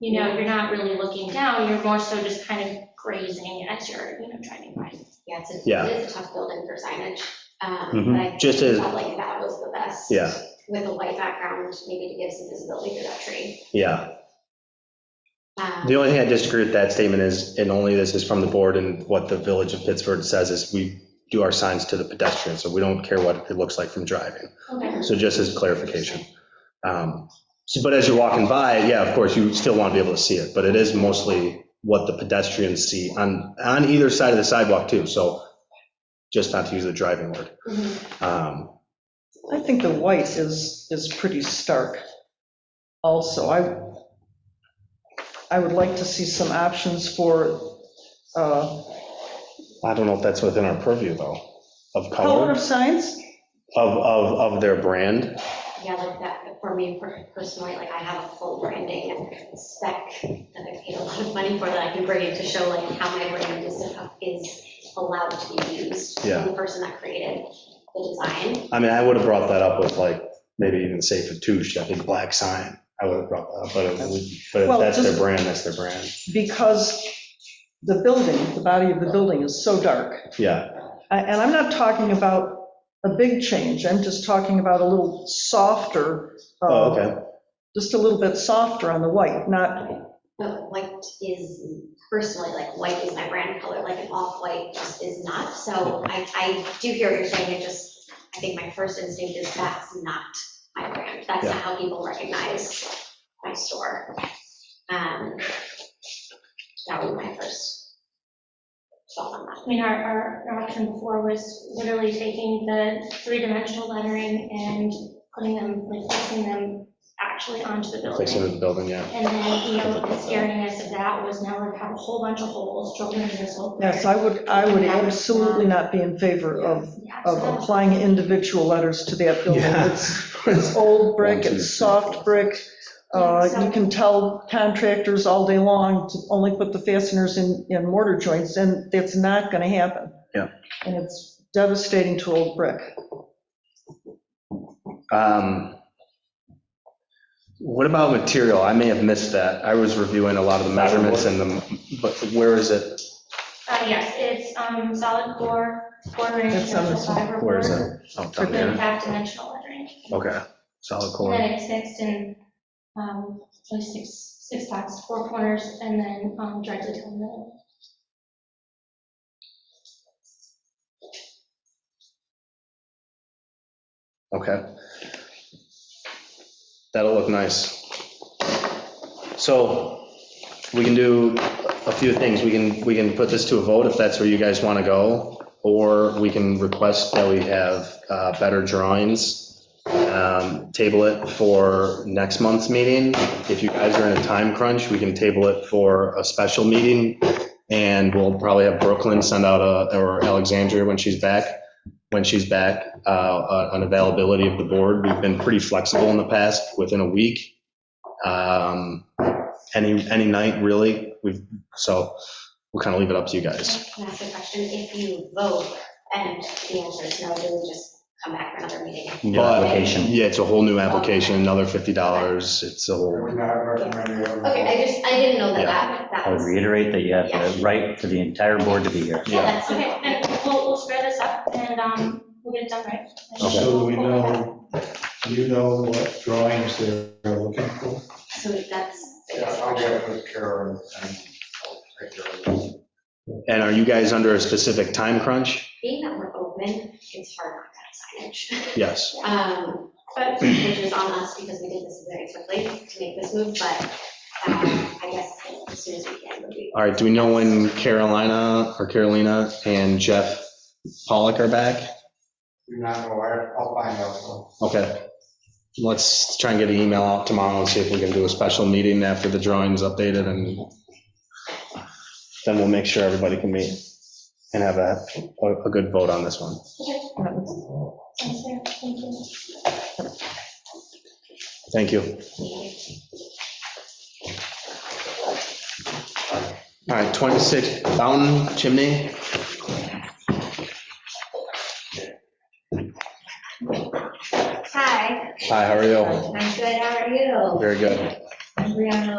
You know, you're not really looking down, you're more so just kind of grazing as you're, you know, driving by. Yeah, it's, Yeah. a- it is a tough building for signage. um, Mhm. But I Just as- felt like that was the best. Yeah. With a white background, maybe to give some visibility to that tree. Yeah, Um, the only thing I disagree with that statement is, and only this is from the board and what the village of Pittsburgh says is we do our signs to the pedestrian, so we don't care what it looks like from driving. Okay. So just as clarification. Um, so- But as you're walking by, yeah, of course, you still want to be able to see it, but it is mostly what the pedestrians see on, on either side of the sidewalk too, so just not to use the driving word. mhm. Um, I think the white is, is pretty stark also. I, I would like to see some options for uh, I don't know if that's within our purview though, of color color, of signs. of, of, of their brand. Yeah, like that, for me per- personally, like I have a full branding and spec that I paid a lot of money for that I can bring in to show like how my brand is, is allowed to be used. Yeah. And The person that created the design. I mean, I would have brought that up with like, maybe even say Fatouche, I think black sign, I would have brought that up, but it would- but if Well, that's their just- brand, that's their brand. because the building, the body of the building is so dark. Yeah, I- And I'm not talking about a big change, I'm just talking about a little softer, uh, oh, okay. just a little bit softer on the white, not, But white is, personally, like, white is my brand color, like, an off-white just is not, so I, I do hear what you're saying, it just, I think my first instinct is that's not my brand, that's not how people recognize my store. Um, That would be my first thought on that. I mean, our, our our option before was literally taking the three-dimensional lettering and putting them, like placing them actually onto the Place it building. in the building, yeah. And then, you know, the scariness of that was now we have a whole bunch of holes drilled into this whole. yes, I would, I would absolutely not be in favor of, Yeah, so of that was- applying individual letters to that building. Yeah. It's it's old brick, it's soft brick, uh, you can tell contractors all day long to only put the fasteners in, in mortar joints, and that's not going to happen. Yeah. And it's devastating to old brick. Um, What about material? I may have missed that. I was reviewing a lot of the measurements and the, but where is it? Uh, yes, it's, um, solid core, four grain That's on natural this one. fiber. Where is Oh, board, it? Oh, down Then here. half dimensional lettering. Okay, solid And core. then it's fixed in, um, like six, six dots, four corners, and then, um, directly to the middle. Okay. That'll look nice. So we can do a few things. We can, we can put this to a vote if that's where you guys want to go. Or we can request that we have uh, better drawings, um, table it for next month's meeting. If you guys are in a time crunch, we can table it for a special meeting. And we'll probably have Brooklyn send out a, or Alexandria when she's back, when she's back, uh, on availability of the board. We've been pretty flexible in the past, within a week. Um, Any, any night, really. We've, so we'll kind of leave it up to you guys. Can I ask a question, if you vote and the answer is no, do we just come back for another meeting? New But- application. Yeah, it's a whole new application, another $50. It's a whole, We're not recommending. it. Okay, I just, I didn't know that that, I that would was. reiterate that you have the right for the entire board to be here. Yeah, yeah. that's- Oh, Okay, and we'll, we'll square this up and, um, we'll get it done right. So we know, you know what drawings they're looking for? So that's. Yeah, I'll get with Karen and I'll take care of it. And are you guys under a specific time crunch? Being that we're open, it's hard not to have signage. Yes. Um, But, which is on us because we did this very quickly to make this move, but um, I guess as soon as we can, would be. All right, do we know when Carolina or Carolina and Jeff Pollock are back? Do not know, I- I'll find out. Okay. Let's try and get an email out tomorrow and see if we can do a special meeting after the drawing's updated and then we'll make sure everybody can meet and have a, a- a good vote on this one. Sounds fair. Thank you. Thank you. All right, 26 Fountain Chimney. Hi, Hi, how are you? I'm good, how are you? Very good. I'm Brianna